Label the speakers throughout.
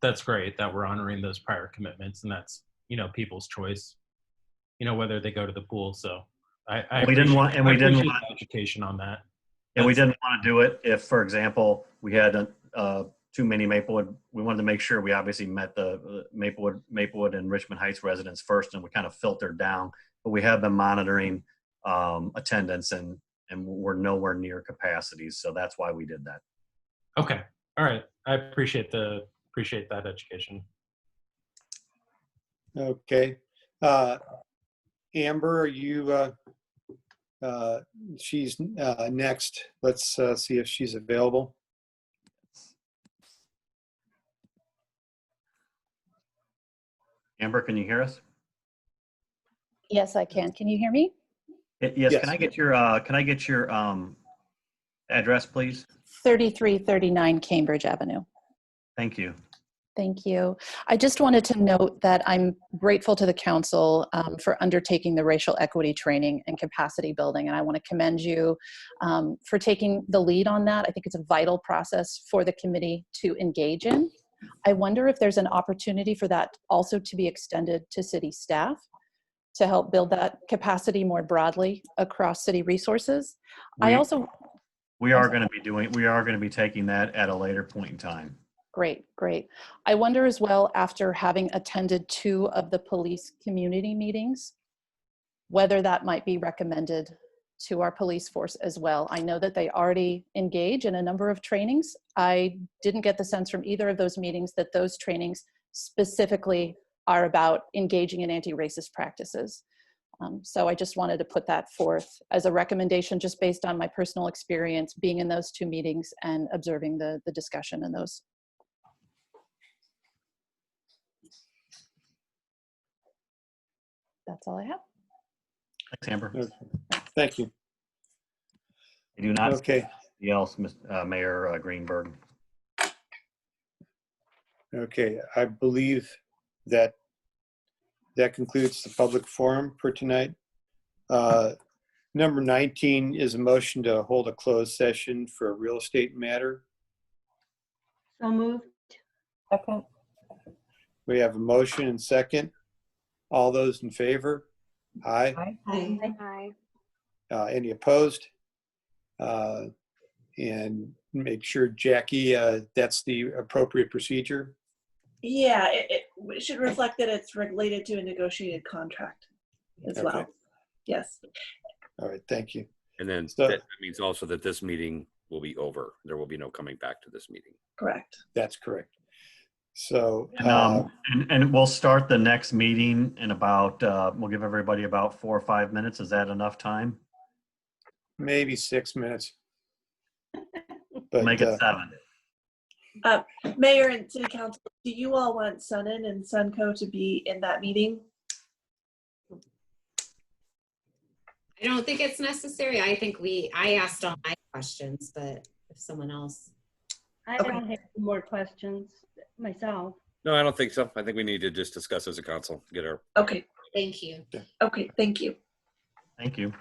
Speaker 1: that's great that we're honoring those prior commitments and that's you know people's choice you know whether they go to the pool so i, I
Speaker 2: We didn't want-
Speaker 1: appreciate-
Speaker 2: and we
Speaker 1: I
Speaker 2: didn't
Speaker 1: appreciate
Speaker 2: want-
Speaker 1: the education on that
Speaker 2: And we didn't want to do it if, for example, we had a, uh, too many Maplewood. We wanted to make sure we obviously met the uh, Maplewood, Maplewood and Richmond Heights residents first, and we kind of filtered down. But we have been monitoring um, attendance, and and we're nowhere near capacities, so that's why we did that.
Speaker 1: okay all right i appreciate the appreciate that education
Speaker 3: Okay. Uh, Amber, are you, uh, uh, she's uh, next. Let's uh, see if she's available.
Speaker 2: Amber, can you hear us?
Speaker 4: Yes, I can. Can you hear me?
Speaker 2: Y- Yes.
Speaker 3: Yes.
Speaker 2: Can I get your uh, Can I get your um, address, please?
Speaker 4: 3339 Cambridge Avenue.
Speaker 2: Thank you.
Speaker 4: Thank you. I just wanted to note that I'm grateful to the council um, for undertaking the racial equity training and capacity building, and I want to commend you um, for taking the lead on that. I think it's a vital process for the committee to engage in. I wonder if there's an opportunity for that also to be extended to city staff to help build that capacity more broadly across city resources. I
Speaker 2: We-
Speaker 4: also
Speaker 2: We are going to be doing. We are going to be taking that at a later point in time.
Speaker 4: Great, great. I wonder as well, after having attended two of the police community meetings, whether that might be recommended to our police force as well. I know that they already engage in a number of trainings. I didn't get the sense from either of those meetings that those trainings specifically are about engaging in anti-racist practices. Um, so I just wanted to put that forth as a recommendation, just based on my personal experience being in those two meetings and observing the, the discussion in those. That's all I have.
Speaker 2: Thanks, Amber.
Speaker 3: Thank you.
Speaker 2: I do not
Speaker 3: Okay.
Speaker 2: Anything else, Ms. uh, Mayor uh, Greenberg?
Speaker 3: Okay. I believe that that concludes the public forum for tonight. Uh, number 19 is a motion to hold a closed session for a real estate matter.
Speaker 5: So moved.
Speaker 6: Second.
Speaker 3: We have a motion and second. All those in favor? Aye.
Speaker 5: Aye.
Speaker 7: Aye.
Speaker 3: Uh, Any opposed? Uh, And make sure, Jackie, uh, that's the appropriate procedure.
Speaker 6: Yeah, it, it we should reflect that it's related to a negotiated contract as
Speaker 3: Okay.
Speaker 6: well. Yes.
Speaker 3: All right, thank you.
Speaker 8: And then
Speaker 3: So-
Speaker 8: that means also that this meeting will be over. There will be no coming back to this meeting.
Speaker 6: Correct.
Speaker 3: That's correct. So, uh,
Speaker 2: And, um, and, and we'll start the next meeting in about, uh, we'll give everybody about four or five minutes. Is that enough time?
Speaker 3: uh, maybe six minutes. But
Speaker 2: Make
Speaker 3: uh,
Speaker 2: it seven.
Speaker 6: Mayor and City Council, do you all want Sunin and Sunco to be in that meeting?
Speaker 9: I don't think it's necessary. I think we, I asked all my questions, but if someone else.
Speaker 5: I
Speaker 6: Okay.
Speaker 5: don't have more questions myself.
Speaker 8: No, I don't think so. I think we need to just discuss as a council, get our
Speaker 6: Okay.
Speaker 9: Thank you.
Speaker 6: Okay. Thank you.
Speaker 2: Thank you.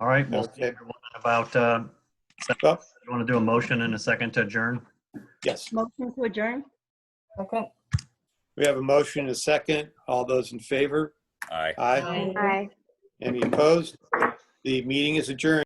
Speaker 2: All right, we'll see
Speaker 3: Okay.
Speaker 2: everyone in about, uh, seven.
Speaker 3: Oh.
Speaker 2: I want to do a motion in a second to adjourn.
Speaker 3: yes,
Speaker 5: Motion to adjourn?
Speaker 6: Okay.
Speaker 3: we have a motion and a second. All those in favor?
Speaker 8: eye.
Speaker 3: Aye.
Speaker 9: Um,
Speaker 7: Aye.
Speaker 3: Any opposed? The meeting is adjourned.